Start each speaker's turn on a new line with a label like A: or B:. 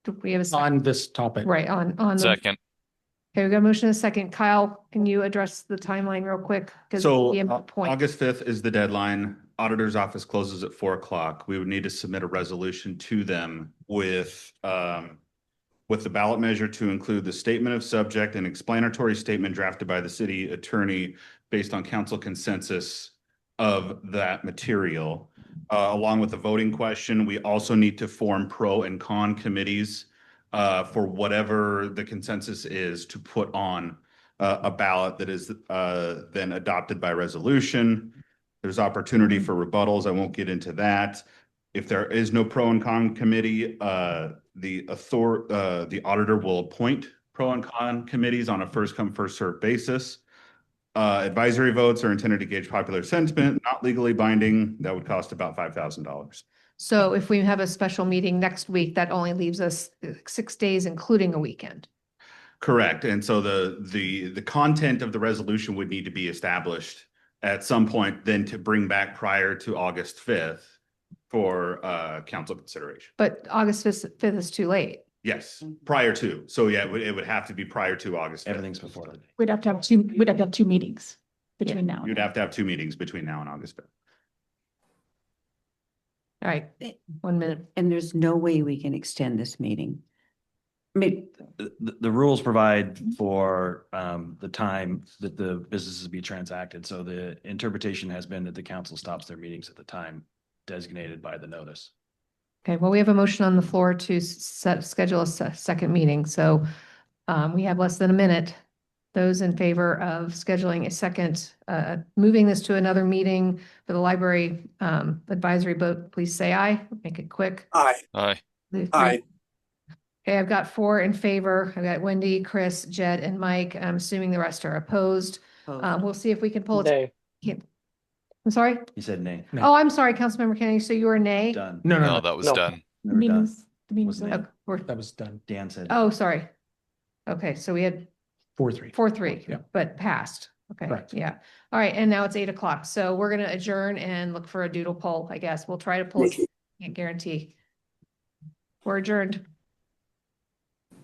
A: do we have a second?
B: on this topic.
A: Right, on, on. the-
C: Second,
A: Okay, we got a motion and a second. Kyle, can you address the timeline real quick? 'Cause
D: So
A: the
D: uh,
A: input point.
D: August fifth is the deadline. Auditor's office closes at four o'clock. We would need to submit a resolution to them with um. With the ballot measure to include the statement of subject and explanatory statement drafted by the city attorney based on council consensus. Of that material, uh, along with the voting question, we also need to form pro and con committees. Uh, for whatever the consensus is to put on uh, a ballot that is uh, then adopted by resolution. There's opportunity for rebuttals. I won't get into that. If there is no pro and con committee, uh, the author, uh, the auditor will appoint pro and con committees on a first come, first served basis. Uh, Advisory votes are intended to gauge popular sentiment, not legally binding. That would cost about five thousand dollars.
A: So if we have a special meeting next week, that only leaves us uh, six days, including a weekend.
D: Correct. And so the, the, the content of the resolution would need to be established at some point then to bring back prior to August fifth for, uh, council consideration.
A: But August fifth fifth is too late.
D: Yes,
B: Mm-hmm.
D: prior to. So yeah, it would, it would have to be prior to August. 5th.
B: Everything's before that.
E: We'd have to have two, we'd have to have two meetings between now. and
D: You'd
E: then.
D: have to have two meetings between now and August fifth.
A: All right, one minute.
F: And there's no way we can extend this meeting. I mean,
G: the, the- the rules provide for um, the time that the businesses be transacted. So the interpretation has been that the council stops their meetings at the time designated by the notice.
A: Okay, well, we have a motion on the floor to s- set, schedule a se- second meeting, so um, we have less than a minute. Those in favor of scheduling a second, uh, moving this to another meeting for the library um, advisory vote, please say aye, make it quick.
H: Aye,
C: aye,
A: The three-
H: aye,
A: Okay, I've got four in favor. I've got Wendy, Chris, Jed, and Mike. I'm assuming the rest are opposed. Uh,
F: oh,
A: we'll see if we can pull it. Can't- I'm sorry?
G: He said nay.
B: No.
A: Oh, I'm sorry, Councilmember Kennedy, so you were nay?
G: Done.
B: No,
C: no,
B: no, no,
C: that was
H: No.
C: done.
E: The
G: Never done.
E: Meetings, the meetings.
G: Wasn't
E: are-
A: Oh, we're-
B: that was done.
G: Dan said.
A: Oh, sorry. Okay, so we had
B: Four, three.
A: four, three,
B: Yeah.
A: but passed. Okay,
B: Correct.
A: yeah. All right, and now it's eight o'clock, so we're gonna adjourn and look for a doodle poll, I guess. We'll try to pull, it.
H: Nikki.
A: can't guarantee. We're adjourned.